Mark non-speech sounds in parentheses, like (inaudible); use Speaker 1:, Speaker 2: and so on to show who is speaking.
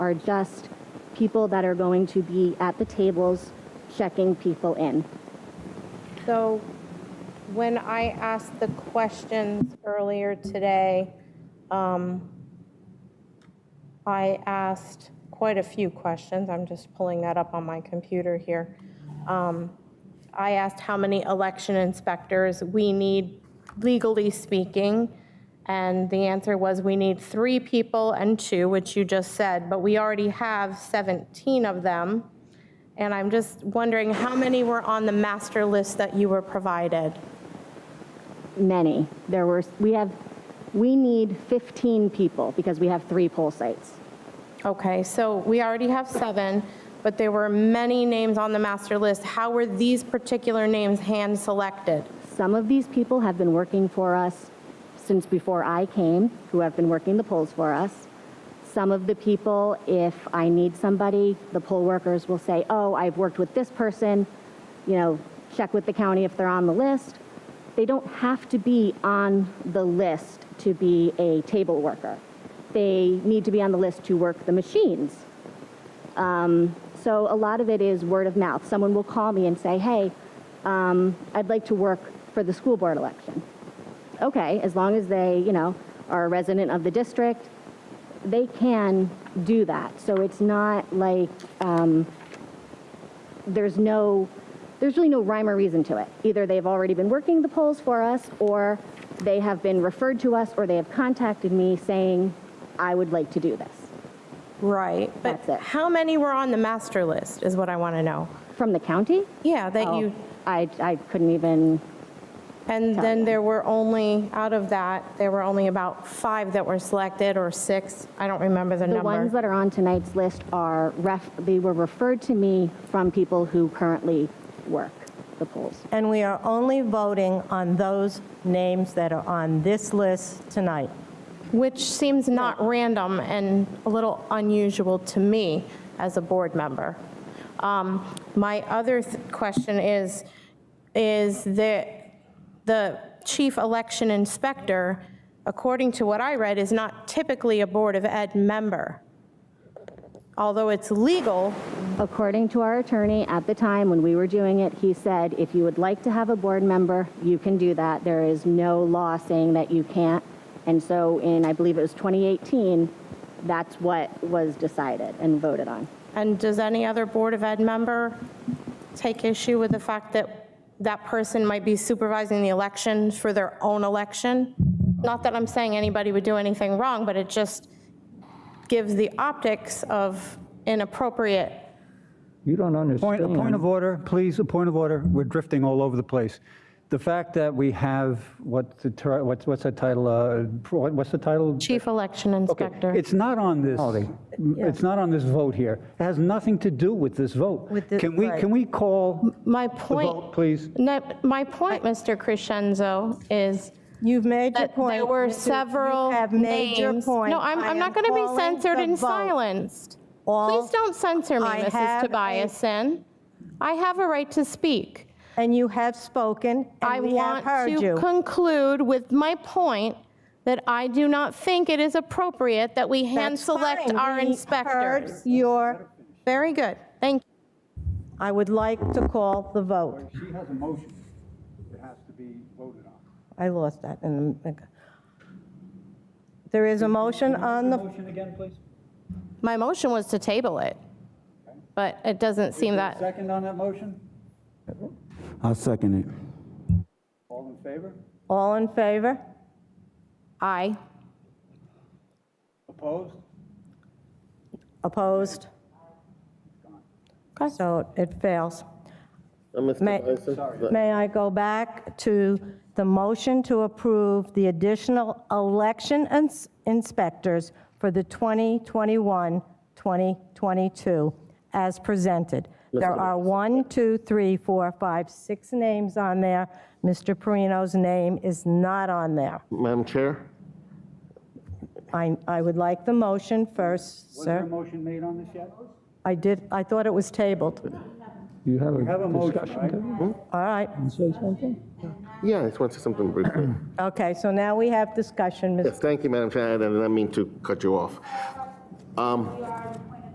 Speaker 1: are just people that are going to be at the tables checking people in.
Speaker 2: So when I asked the questions earlier today, um, I asked quite a few questions. I'm just pulling that up on my computer here. Um, I asked how many election inspectors we need legally speaking, and the answer was we need three people and two, which you just said, but we already have 17 of them. And I'm just wondering how many were on the master list that you were provided?
Speaker 1: Many. There were, we have, we need 15 people because we have three poll sites.
Speaker 2: Okay, so we already have seven, but there were many names on the master list. How were these particular names hand-selected?
Speaker 1: Some of these people have been working for us since before I came, who have been working the polls for us. Some of the people, if I need somebody, the poll workers will say, oh, I've worked with this person, you know, check with the county if they're on the list. They don't have to be on the list to be a table worker. They need to be on the list to work the machines. Um, So a lot of it is word of mouth. Someone will call me and say, hey, um, I'd like to work for the school board election. Okay, as long as they, you know, are a resident of the district, they can do that. So it's not like, um, there's no, there's really no rhyme or reason to it. Either they've already been working the polls for us, or they have been referred to us, or they have contacted me saying, I would like to do this,
Speaker 2: Right. But
Speaker 1: That's it.
Speaker 2: how many were on the master list is what I want to know.
Speaker 1: from the county.
Speaker 2: Yeah, that
Speaker 1: Oh,
Speaker 2: you,
Speaker 1: I, I couldn't even,
Speaker 2: and then
Speaker 1: me.
Speaker 2: there were only, out of that, there were only about five that were selected or six. I don't remember the
Speaker 1: the
Speaker 2: number.
Speaker 1: ones that are on tonight's list are ref, they were referred to me from people who currently work the polls.
Speaker 3: And we are only voting on those names that are on this list tonight.
Speaker 2: Which seems not random and a little unusual to me as a board member. Um, My other th- question is, is that the chief election inspector, according to what I read, is not typically a Board of Ed member. Although it's legal,
Speaker 1: According to our attorney, at the time when we were doing it, he said, if you would like to have a board member, you can do that. There is no law saying that you can't. And so in, I believe it was 2018, that's what was decided and voted on.
Speaker 2: and does any other Board of Ed member take issue with the fact that that person might be supervising the elections for their own election? Not that I'm saying anybody would do anything wrong, but it just gives the optics of inappropriate.
Speaker 4: You don't
Speaker 5: Point,
Speaker 4: understand.
Speaker 5: a point of order, please, a point of order. We're drifting all over the place. The fact that we have, what the, ter- what's, what's that title, uh, what- what's the title?
Speaker 2: Chief Election
Speaker 5: Okay,
Speaker 2: Inspector.
Speaker 5: It's not on this,
Speaker 4: Quality.
Speaker 5: it's not on this vote here. It has nothing to do with this vote.
Speaker 3: With the-
Speaker 5: Can we,
Speaker 3: right.
Speaker 5: can we call
Speaker 2: My
Speaker 5: the
Speaker 2: point,
Speaker 5: vote, please?
Speaker 2: no, my point, Mr. Crescenzo, is
Speaker 3: You've made your
Speaker 2: that
Speaker 3: point.
Speaker 2: there were
Speaker 3: Mr.
Speaker 2: several
Speaker 3: You have made your
Speaker 2: names.
Speaker 3: point.
Speaker 2: No, I'm,
Speaker 3: I
Speaker 2: I'm
Speaker 3: am
Speaker 2: not going to be
Speaker 3: calling
Speaker 2: censored
Speaker 3: the
Speaker 2: and
Speaker 3: vote.
Speaker 2: silenced.
Speaker 3: All-
Speaker 2: Please don't censor me,
Speaker 3: I
Speaker 2: Mrs.
Speaker 3: have a-
Speaker 2: Tobiasen. I have a right to speak.
Speaker 3: And you have spoken,
Speaker 2: I
Speaker 3: and we
Speaker 2: want
Speaker 3: have heard
Speaker 2: to
Speaker 3: you.
Speaker 2: conclude with my point that I do not think it is appropriate that we
Speaker 3: That's
Speaker 2: hand-select
Speaker 3: fine.
Speaker 2: our
Speaker 3: We
Speaker 2: inspectors.
Speaker 3: heard Your,
Speaker 2: Very good, thank you.
Speaker 3: I would like to call the vote.
Speaker 5: She has a motion that has to be voted on.
Speaker 3: I lost that in the... There is a motion on the,
Speaker 5: Motion again, please?
Speaker 2: My motion was to table it, but it doesn't seem that,
Speaker 5: Second on that motion?
Speaker 4: I'll second it.
Speaker 5: All in favor?
Speaker 3: all in favor?
Speaker 2: aye.
Speaker 5: Opposed?
Speaker 3: Opposed? So it fails.
Speaker 6: Uh, Mr.
Speaker 3: May-
Speaker 6: Bison?
Speaker 3: May I go back to the motion to approve the additional election ins- inspectors for the 2021-2022 as presented? There are one, two, three, four, five, six names on there. Mr. Perino's name is not on there.
Speaker 6: Madam Chair?
Speaker 3: I I would like the motion first,
Speaker 5: Was there a
Speaker 3: sir.
Speaker 5: motion made on this yet?
Speaker 3: I did, I thought it was tabled.
Speaker 4: You have
Speaker 5: We have a
Speaker 4: a
Speaker 5: motion,
Speaker 4: discussion
Speaker 5: right?
Speaker 4: to
Speaker 3: All right.
Speaker 4: say something?
Speaker 6: Yeah, I just want to say something briefly. (clears throat)
Speaker 3: Okay, so now we have discussion, Mr.
Speaker 6: Yes, thank you, Madam Chair, I did not mean to cut you off. Um,